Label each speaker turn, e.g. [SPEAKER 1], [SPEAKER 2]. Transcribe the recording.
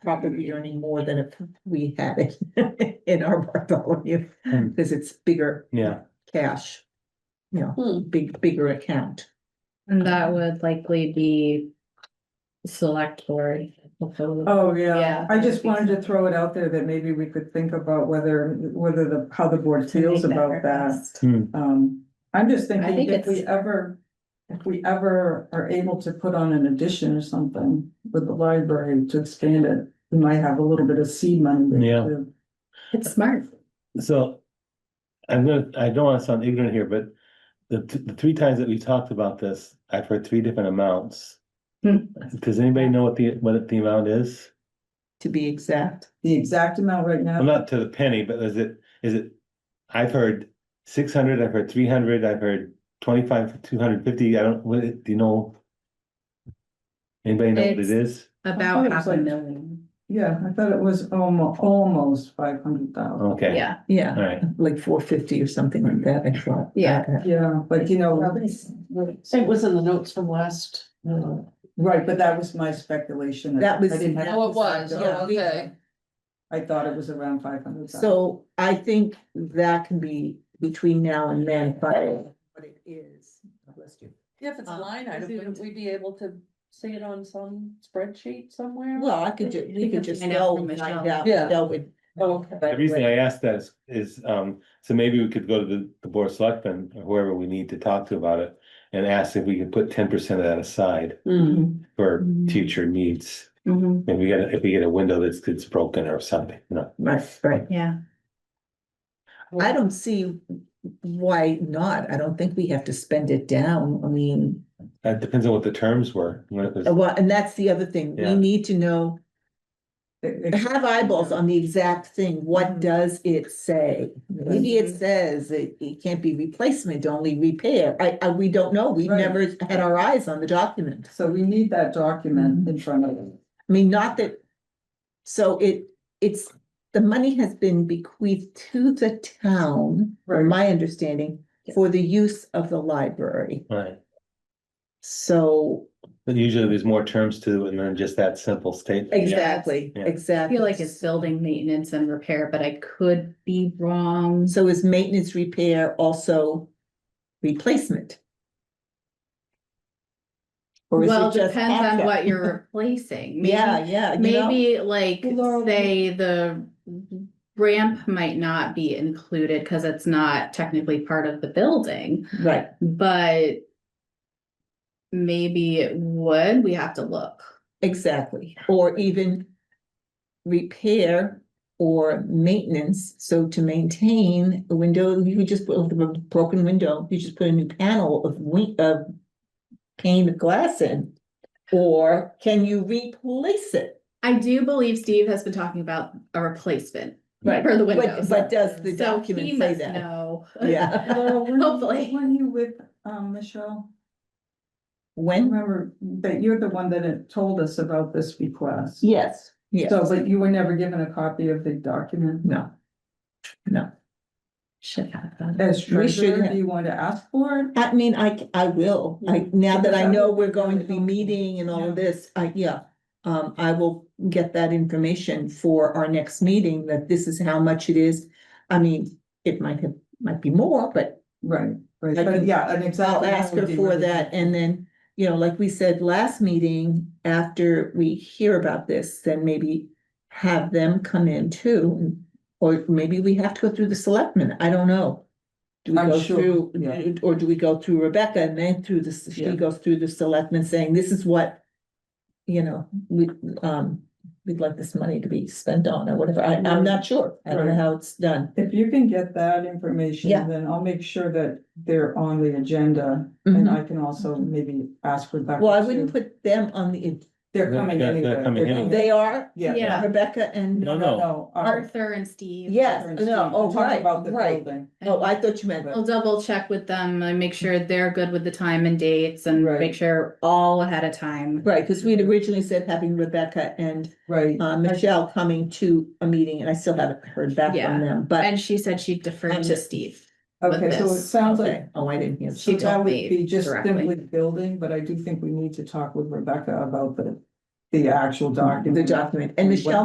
[SPEAKER 1] probably earning more than if we had it in our Bartholomew,
[SPEAKER 2] Hmm.
[SPEAKER 1] because it's bigger
[SPEAKER 2] Yeah,
[SPEAKER 1] cash. You
[SPEAKER 3] Hmm.
[SPEAKER 1] know, big, bigger account.
[SPEAKER 4] And that would likely be select board. proposal.
[SPEAKER 5] Oh,
[SPEAKER 4] Yeah.
[SPEAKER 5] yeah, I just wanted to throw it out there that maybe we could think about whether, whether the, how the board feels about that.
[SPEAKER 4] request.
[SPEAKER 5] Um, I'm just
[SPEAKER 4] I think
[SPEAKER 5] thinking if we
[SPEAKER 4] it's-
[SPEAKER 5] ever, if we ever are able to put on an addition or something with the library to expand it, we might have a little bit of seed money.
[SPEAKER 2] Yeah.
[SPEAKER 5] to-
[SPEAKER 4] It's smart.
[SPEAKER 2] so. I'm gonna, I don't wanna sound ignorant here, but the, th- the three times that we talked about this, I've heard three different amounts.
[SPEAKER 4] Hmm.
[SPEAKER 2] Does anybody know what the, what the amount is?
[SPEAKER 1] To be exact,
[SPEAKER 5] The exact amount right
[SPEAKER 2] Well,
[SPEAKER 5] now,
[SPEAKER 2] not to the penny, but is it, is it, I've heard six hundred, I've heard three hundred, I've heard twenty-five, two hundred fifty, I don't, what, it- do you know? Anybody know what it
[SPEAKER 4] It's-
[SPEAKER 2] is?
[SPEAKER 5] thought
[SPEAKER 4] About
[SPEAKER 5] it was
[SPEAKER 4] half a
[SPEAKER 5] like-
[SPEAKER 4] million.
[SPEAKER 5] yeah, I thought it was almo- almost five hundred thousand.
[SPEAKER 2] Okay.
[SPEAKER 4] Yeah,
[SPEAKER 1] yeah,
[SPEAKER 2] All right,
[SPEAKER 1] like four fifty or something like that, I thought.
[SPEAKER 4] Yeah.
[SPEAKER 5] Yeah, but you know, Mhm.
[SPEAKER 3] It was in the notes from last. uh,
[SPEAKER 5] right, but that was my speculation.
[SPEAKER 1] That was-
[SPEAKER 5] I didn't have-
[SPEAKER 3] Oh, it was, oh, okay.
[SPEAKER 5] I thought it was around five hundred.
[SPEAKER 1] Uh, So I think that can be between now and then, but what it is. bless you.
[SPEAKER 3] Yeah, If it's a
[SPEAKER 1] Um,
[SPEAKER 3] line item,
[SPEAKER 4] presumed.
[SPEAKER 3] wouldn't we be able to see it on some spreadsheet somewhere?
[SPEAKER 1] Well, I could, ju- we could just
[SPEAKER 4] Find out
[SPEAKER 1] go
[SPEAKER 4] from
[SPEAKER 1] and find
[SPEAKER 4] Michelle.
[SPEAKER 1] out.
[SPEAKER 3] Yeah.
[SPEAKER 1] That would-
[SPEAKER 3] Oh, okay.
[SPEAKER 2] the reason I asked that is, is, um, so maybe we could go to the, the board of selectmen, or whoever we need to talk to about it. And ask if we could put ten percent of that aside
[SPEAKER 3] Mm.
[SPEAKER 2] for
[SPEAKER 4] Mhm.
[SPEAKER 2] future needs,
[SPEAKER 5] Mhm.
[SPEAKER 2] and we get, a- if we get a window that's, that's broken or something, you know.
[SPEAKER 1] Right, right.
[SPEAKER 4] yeah.
[SPEAKER 1] I don't see why not. I don't think we have to spend it down. I mean,
[SPEAKER 2] That depends on what the terms were, when it was.
[SPEAKER 1] uh, well, and that's the other thing. We
[SPEAKER 2] Yeah.
[SPEAKER 1] need to know, have eyeballs on the exact thing. What does it say? Maybe it says it, it can't be replacement, only repair. I, I, we don't know. We've
[SPEAKER 5] Right.
[SPEAKER 1] never had our eyes on the document.
[SPEAKER 5] So we need that document in front of us.
[SPEAKER 1] I mean, not that, so it, it's, the money has been bequeathed to the town, from my understanding, for the use of the library.
[SPEAKER 2] Right,
[SPEAKER 1] So,
[SPEAKER 2] but usually there's more terms to, it than just that simple statement.
[SPEAKER 1] exactly,
[SPEAKER 2] Yeah.
[SPEAKER 4] I
[SPEAKER 1] exactly.
[SPEAKER 4] feel like it's building maintenance and repair, but I could be wrong.
[SPEAKER 1] So is maintenance repair also replacement? Or is
[SPEAKER 4] Well,
[SPEAKER 1] it just?
[SPEAKER 4] depends on
[SPEAKER 1] asset?
[SPEAKER 4] what you're replacing. Maybe
[SPEAKER 1] Yeah, yeah, you know,
[SPEAKER 4] Maybe like,
[SPEAKER 3] Well,
[SPEAKER 4] say, the ramp might not be included because it's not technically part of the building,
[SPEAKER 1] right,
[SPEAKER 4] but maybe it would, we have to look.
[SPEAKER 1] exactly, or even repair or maintenance, so to maintain a window, you could just put a broken window, you just put a new panel of win- of pane of glass in, or can you replace it?
[SPEAKER 4] I do believe Steve has been talking about a replacement
[SPEAKER 1] Right.
[SPEAKER 4] for the
[SPEAKER 1] But,
[SPEAKER 4] windows.
[SPEAKER 1] but does the
[SPEAKER 4] So he
[SPEAKER 1] document say
[SPEAKER 4] must
[SPEAKER 1] that?
[SPEAKER 4] know.
[SPEAKER 1] Yeah,
[SPEAKER 4] Hopefully.
[SPEAKER 5] When you with, um, Michelle, I
[SPEAKER 1] when,
[SPEAKER 5] remember that you're the one that had told us about this request.
[SPEAKER 1] yes, yes,
[SPEAKER 5] So, but you were never given a copy of the document.
[SPEAKER 1] no. No,
[SPEAKER 4] Should have done.
[SPEAKER 5] As
[SPEAKER 1] We should
[SPEAKER 5] treasurer,
[SPEAKER 1] have-
[SPEAKER 5] do you want to ask for it?
[SPEAKER 1] I mean, I, c- I will, I, now that I
[SPEAKER 5] Because I
[SPEAKER 1] know
[SPEAKER 5] would
[SPEAKER 1] we're
[SPEAKER 5] be
[SPEAKER 1] going to
[SPEAKER 5] really
[SPEAKER 1] be
[SPEAKER 5] helpful.
[SPEAKER 1] meeting and all
[SPEAKER 5] Yeah.
[SPEAKER 1] of this, I, yeah. Um, I will get that information for our next meeting, that this is how much it is. I mean, it might have, might be more, but
[SPEAKER 5] Right, right,
[SPEAKER 1] I
[SPEAKER 5] but
[SPEAKER 1] can-
[SPEAKER 5] yeah, an exact.
[SPEAKER 1] I'll ask her for that, and then, you know, like we said last meeting, after we hear about this, then maybe have them come in too, and- or maybe we have to go through the selectmen, I don't know. Do we
[SPEAKER 5] I'm
[SPEAKER 1] go
[SPEAKER 5] sure,
[SPEAKER 1] through,
[SPEAKER 5] yeah.
[SPEAKER 1] or do we go through Rebecca and then through the, she
[SPEAKER 5] Yeah.
[SPEAKER 1] goes through the selectmen saying, this is what, you know, we, um, we'd like this money to be spent on or whatever, I, I'm not sure, I don't know
[SPEAKER 5] Right.
[SPEAKER 1] how it's done.
[SPEAKER 5] If you can get that information,
[SPEAKER 1] Yeah.
[SPEAKER 5] then I'll make sure that they're on the agenda, and I can also maybe ask Rebecca.
[SPEAKER 1] Mm-hmm. Well, I
[SPEAKER 5] too.
[SPEAKER 1] wouldn't put them on the,
[SPEAKER 5] They're
[SPEAKER 2] They're-
[SPEAKER 5] coming
[SPEAKER 2] they're-
[SPEAKER 5] anyway.
[SPEAKER 2] they're coming
[SPEAKER 5] They're-
[SPEAKER 2] anyway.
[SPEAKER 1] they are,
[SPEAKER 4] Yeah.
[SPEAKER 1] Rebecca and.
[SPEAKER 2] No, no.
[SPEAKER 5] No, our-
[SPEAKER 4] Arthur and Steve.
[SPEAKER 1] Yes,
[SPEAKER 5] Catherine
[SPEAKER 1] no,
[SPEAKER 5] Steve,
[SPEAKER 1] oh,
[SPEAKER 5] talk
[SPEAKER 1] right,
[SPEAKER 5] about the
[SPEAKER 1] right.
[SPEAKER 5] building.
[SPEAKER 1] Oh, I thought you meant,
[SPEAKER 4] I'll double check with them and make sure they're good with the time and dates and
[SPEAKER 5] Right.
[SPEAKER 4] make sure all ahead of time.
[SPEAKER 1] right, because we'd originally said having Rebecca and
[SPEAKER 5] Right,
[SPEAKER 1] uh, Michelle coming to a meeting, and I still haven't heard back
[SPEAKER 4] Yeah.
[SPEAKER 1] from them, but.
[SPEAKER 4] And she said she deferred to
[SPEAKER 1] And-
[SPEAKER 4] Steve. with
[SPEAKER 5] okay, so it
[SPEAKER 4] this.
[SPEAKER 5] sounds like,
[SPEAKER 1] Okay, oh, I didn't hear.
[SPEAKER 5] so
[SPEAKER 4] She
[SPEAKER 5] that
[SPEAKER 4] told
[SPEAKER 5] would
[SPEAKER 4] me
[SPEAKER 5] be just
[SPEAKER 4] directly.
[SPEAKER 5] simply building, but I do think we need to talk with Rebecca about the the actual document.
[SPEAKER 1] the document, and
[SPEAKER 5] What
[SPEAKER 1] Michelle